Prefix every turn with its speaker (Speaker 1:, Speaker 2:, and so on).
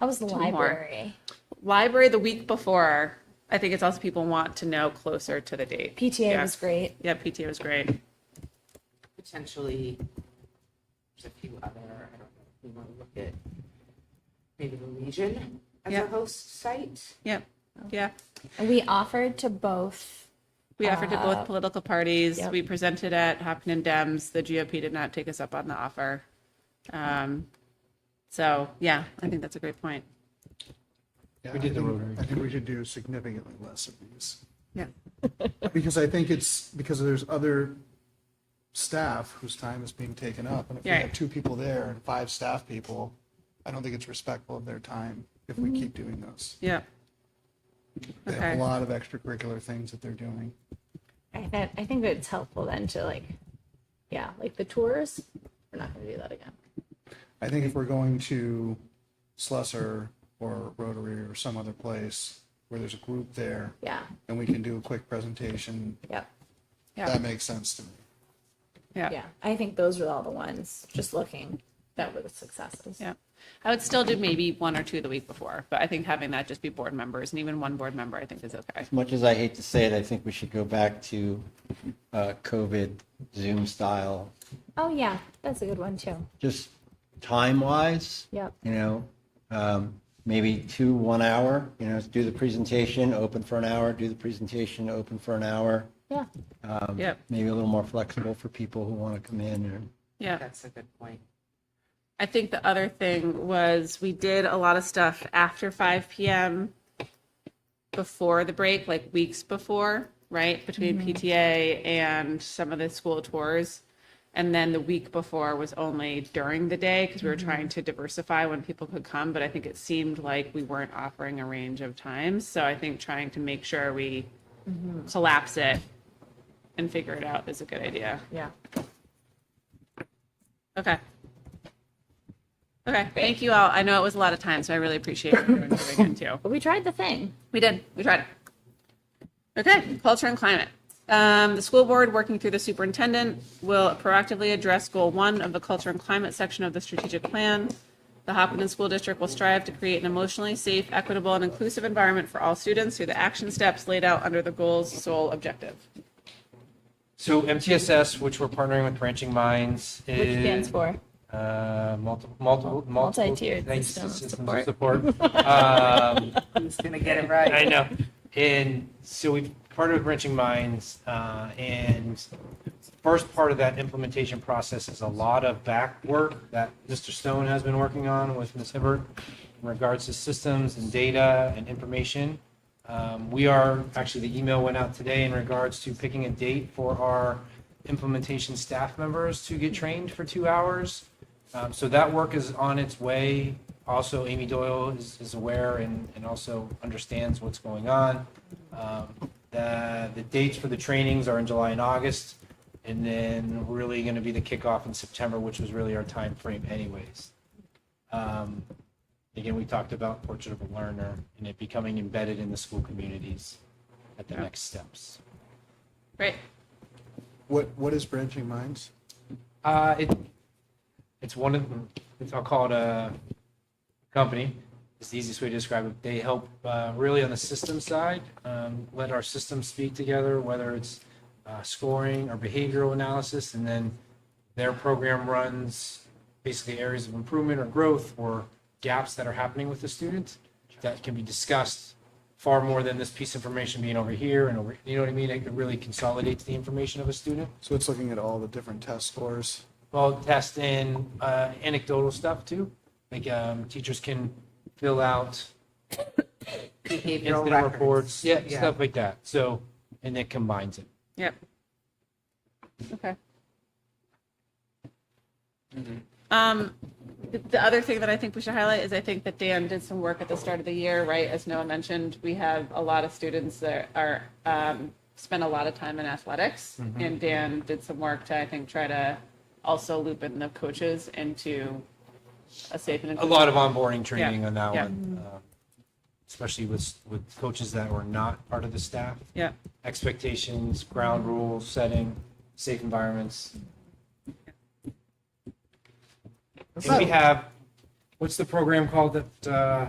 Speaker 1: How was the
Speaker 2: Two more.
Speaker 1: library?
Speaker 2: Library the week before. I think it's also people want to know closer to the date.
Speaker 1: PTA
Speaker 2: Yeah.
Speaker 1: was great.
Speaker 2: Yeah, PTA was great.
Speaker 3: potentially, there's a few other, I don't know, if we want to look at maybe the Legion as
Speaker 2: Yeah.
Speaker 3: a host site.
Speaker 2: Yep. Yeah.
Speaker 1: And we offered to both.
Speaker 2: We offered to both political parties.
Speaker 1: yep.
Speaker 2: We presented at Hopkinen Dems. The GOP did not take us up on the offer. Um, so yeah, I think that's a great point.
Speaker 4: Yeah,
Speaker 5: We did
Speaker 4: I
Speaker 5: the
Speaker 4: think-
Speaker 5: Rotary.
Speaker 4: I think we should do significantly less of these.
Speaker 2: Yeah.
Speaker 4: Because I think it's, because there's other staff whose time is being taken up. And if we
Speaker 2: Right.
Speaker 4: have two people there and five staff people, I don't think it's respectful of their time if we keep doing those.
Speaker 2: Yeah.
Speaker 4: They have
Speaker 2: Mm-hmm. Okay.
Speaker 4: a lot of extracurricular things that they're doing.
Speaker 1: I, th- I think that it's helpful then to like, yeah, like the tours. We're not going to do that again.
Speaker 4: I think if we're going to Slusser or Rotary or some other place where there's a group there
Speaker 1: Yeah.
Speaker 4: and we can do a quick presentation,
Speaker 1: Yep.
Speaker 2: Yeah.
Speaker 4: that makes sense to me.
Speaker 2: Yeah.
Speaker 1: Yeah. I think those were all the ones just looking that were the successes.
Speaker 2: Yeah. I would still do maybe one or two the week before, but I think having that just be board members and even one board member, I think is okay.
Speaker 5: As much as I hate to say it, I think we should go back to uh, COVID Zoom style,
Speaker 1: Oh, yeah. That's a good one too.
Speaker 5: just time wise.
Speaker 1: Yep.
Speaker 5: You know, um, maybe two, one hour, you know, do the presentation, open for an hour, do the presentation, open for an hour.
Speaker 1: Yeah.
Speaker 2: Yep.
Speaker 5: Maybe a little more flexible for people who want to come in and
Speaker 2: Yeah.
Speaker 3: That's a good point.
Speaker 2: I think the other thing was we did a lot of stuff after 5 p.m. before the break, like weeks before, right? Between PTA and some of the school tours. And then the week before was only during the day because we were trying to diversify when people could come. But I think it seemed like we weren't offering a range of times. So I think trying to make sure we collapse it and figure it out is a good idea.
Speaker 1: Yeah.
Speaker 2: Okay. Okay, thank you all. I know it was a lot of time, so I really appreciate everyone coming in too.
Speaker 1: But we tried the thing.
Speaker 2: We did, we tried. Okay, culture and climate. Um, the school board, working through the superintendent, will proactively address goal one of the culture and climate section of the strategic plan. The Hopkinen School District will strive to create an emotionally safe, equitable, and inclusive environment for all students through the action steps laid out under the goal's sole objective.
Speaker 5: So
Speaker 6: MTSS, which we're partnering with Branching Minds, is.
Speaker 1: Which stands for?
Speaker 6: Uh, multiple, multiple, multiple.
Speaker 1: Multi-tiered
Speaker 6: thanks,
Speaker 1: system of
Speaker 6: of support. Um,
Speaker 3: Who's gonna get it right?
Speaker 6: I know. And so we partnered with Wrenching Minds, uh, and first part of that implementation process is a lot of back work that Mr. Stone has been working on with Ms. Hibbert in regards to systems and data and information. Um, we are, actually, the email went out today in regards to picking a date for our implementation staff members to get trained for two hours. Um, so that work is on its way. Also, Amy Doyle is, is aware and, and also understands what's going on. Um, the, the dates for the trainings are in July and August, and then really going to be the kickoff in September, which was really our time frame, anyways. Um, again, we talked about Portrait of a Learner and it becoming embedded in the school communities at the next steps.
Speaker 2: Great.
Speaker 4: What, what is Branching Minds?
Speaker 6: Uh, it, it's one of, it's, I'll call it a company. It's the easiest way to describe it. They help uh, really on the system side, um, let our systems speak together, whether it's uh, scoring or behavioral analysis, and then their program runs basically areas of improvement or growth or gaps that are happening with the student that can be discussed far more than this piece of information being over here and over, you know what I mean? It really consolidates the information of a student.
Speaker 4: So it's looking at all the different test scores.
Speaker 6: Well, test in uh, anecdotal stuff too. Like um, teachers can fill out
Speaker 3: Behavioral
Speaker 6: incident
Speaker 3: records.
Speaker 6: reports, yeah, stuff like that. So, and it combines it.
Speaker 2: Yep. Okay. Um, the, the other thing that I think we should highlight is I think that Dan did some work at the start of the year, right? As Noah mentioned, we have a lot of students that are, um, spend a lot of time in athletics.
Speaker 6: Mm-hmm.
Speaker 2: And Dan did some work to, I think, try to also loop in the coaches into a safe and
Speaker 6: A
Speaker 2: inclusive.
Speaker 6: lot of onboarding training on that
Speaker 2: yeah.
Speaker 6: one, uh, especially with with coaches that were not part of the staff.
Speaker 2: Yeah,
Speaker 6: Expectations, ground rules, setting, safe environments. And we have what's the program called that, uh,